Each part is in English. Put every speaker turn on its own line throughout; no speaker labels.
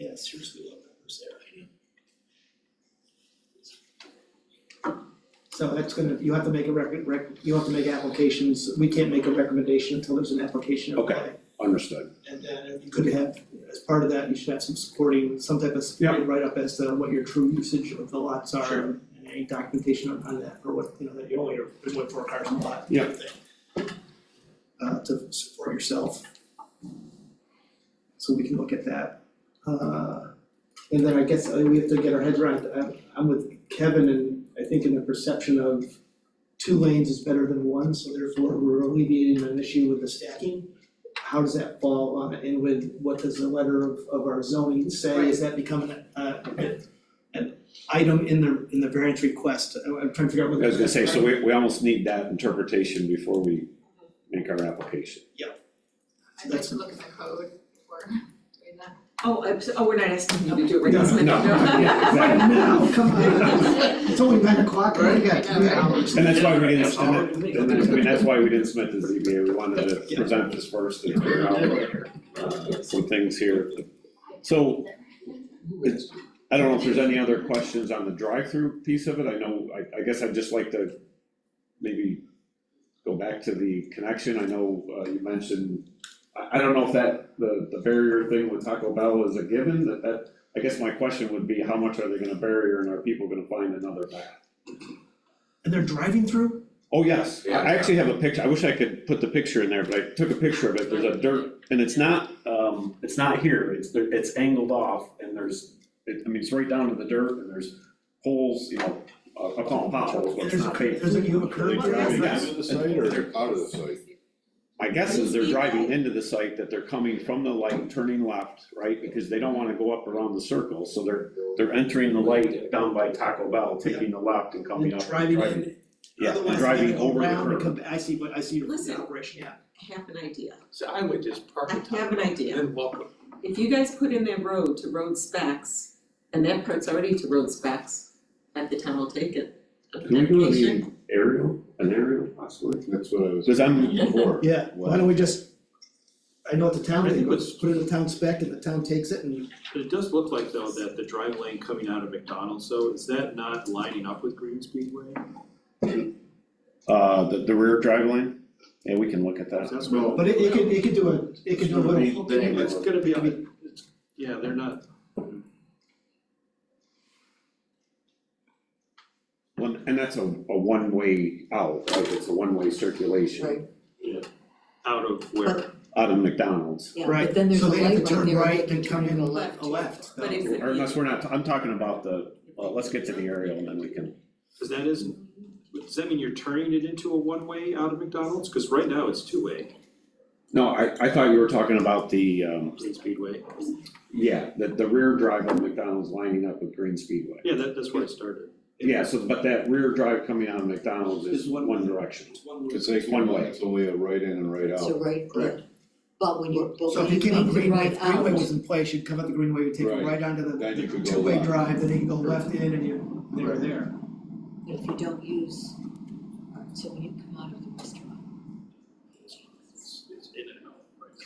I seriously love numbers there.
So that's gonna, you have to make a record, rec, you have to make applications, we can't make a recommendation until there's an application.
Okay.
required.
Understood.
And then if you could have, as part of that, you should have some supporting, some type of supporting write-up as to what your true usage of the lots are.
Sure.
And any documentation on, on that, or what, you know, that you only are, there's only four cars on the lot.
Yeah.
thing, Uh, to support yourself. So we can look at that. Uh, and then I guess uh, we have to get our heads around, I'm, I'm with Kevin and I think in the perception of two lanes is better than one, so therefore we're alleviating an issue with the stacking how does that fall on, and with, what does the letter of, of our zoning say, is that becoming uh, an, an item in the, in the variance request, I'm I'm trying to figure out what.
I was gonna say, so we, we almost need that interpretation before we make our application.
I'd like to look at the code for doing that.
Oh, I'm, so- oh, we're not asking you to do it right
No,
this minute.
no, yeah,
Right now,
exactly.
come on, it's only nine o'clock, we got
Right.
three hours.
And that's why we didn't,
Yeah.
and that- and that's, I mean, that's why we didn't submit the ZBA, we wanted to present this first and figure out uh, some things here. So, it's, I don't know if there's any other questions on the drive-through piece of it, I know, I, I guess I'd just like to maybe go back to the connection, I know, uh, you mentioned, I, I don't know if that, the, the barrier thing with Taco Bell is a given, that, that, I guess my question would be, how much are they gonna barrier and are people gonna find another path?
And they're driving through?
Oh, yes, I I actually have a picture, I wish I could put the picture in there, but I took a picture of it, there's a dirt, and it's not, um, it's not here, it's, there- it's angled off, and there's, it, I mean, it's right down to the dirt, and there's holes, you know, I call them potholes, but it's
There's a,
not paved.
there's a, you have a curve
Well,
there?
that's
Yeah.
Into the site or out of the site?
My guess is they're driving into the site, that they're coming from the light, turning left, right, because they don't wanna go up around the circle, so they're, they're entering the light down by Taco Bell, taking the left and
And
coming
they're
up.
driving
driving.
in,
Yeah, and
otherwise they
driving
have to go
over the
around and
curb.
come, back. I see, but I see your
Listen.
operation, yeah.
I have an idea.
So I would just park
I
the
have an idea.
and welcome.
If you guys put in that road to road specs, and that part's already to road specs, at the town will take it.
Can we do the aerial, an aerial possibly?
That's what I was.
Because I'm-
Before.
Yeah, why don't we just, I know what the town
I
did,
think
but
what's-
just put it in the town spec and the town takes it and
It does look like though that the drive lane coming out of McDonald's, so is that not lining up with Green Speedway?
Uh, the, the rear drive lane, yeah, we can look at that.
That's what.
But it, it could, it could do a, it could do a little.
Then it's gonna be, on the- it's, yeah, they're not,
One, and that's a, a one-way out, right, it's a one-way circulation
Right.
out of where,
out of McDonald's.
Yeah,
Right,
but then there's a
so they have
light
to
right
turn
there,
right
they can
and come
turn
in
in
a
a
left,
left.
a left,
But
though.
it's-
Or unless we're not, I'm talking about the, well, let's get to the aerial and then we can,
cause that isn't, does that mean you're turning it into a one-way out of McDonald's? Cause right now it's two-way,
no, I, I thought you were talking about the, um,
Green Speedway.
yeah, the, the rear drive of McDonald's lining up with Green Speedway.
Yeah, that, that's where it started.
Yeah, so, but that rear drive coming out of McDonald's is
Is one-
one direction.
It's like,
One way.
it's only a right in and right
So
out.
right,
Correct.
but when you, but
So if
when
you
you
came up
come
green,
right
if
out,
greenway was in place, you'd come up the greenway, you'd take it
Right.
right onto
Then you
the
could go
two-way
left.
drive, then you can go left in and you, they're there.
if you don't use, alright, so when you come out of the restaurant,
It's it's in and out.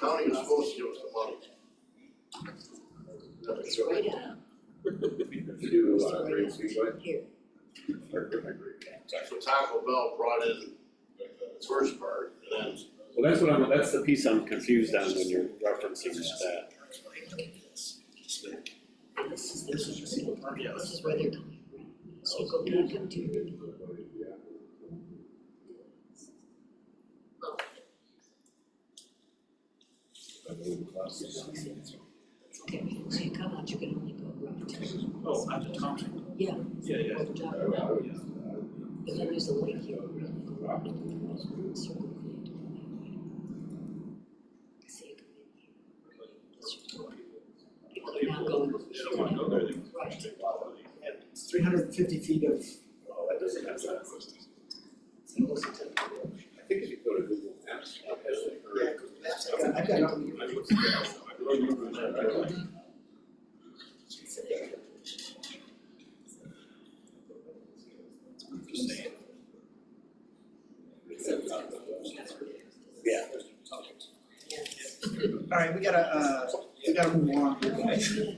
County is supposed to give us the money.
it's right out
To, uh, Green Speedway?
here.
So Taco Bell brought in the first part, and then.
Well, that's what I'm, that's the piece I'm confused on when you're referencing that.
And This is the entrance,
Yeah,
this is where they're coming from. So you go back up to your. Okay, so you come out, you can only go right.
oh, out of Thompson,
Yeah.
yeah, yeah.
But then there's a lake here. Circle it. So you come in here. That's your door. People are now going.
They don't wanna go there, they
Right.
It's three hundred and fifty feet of.
I think if you go to Google Maps, it has the curve.
I've got, it. all right, we gotta, uh, we gotta move on.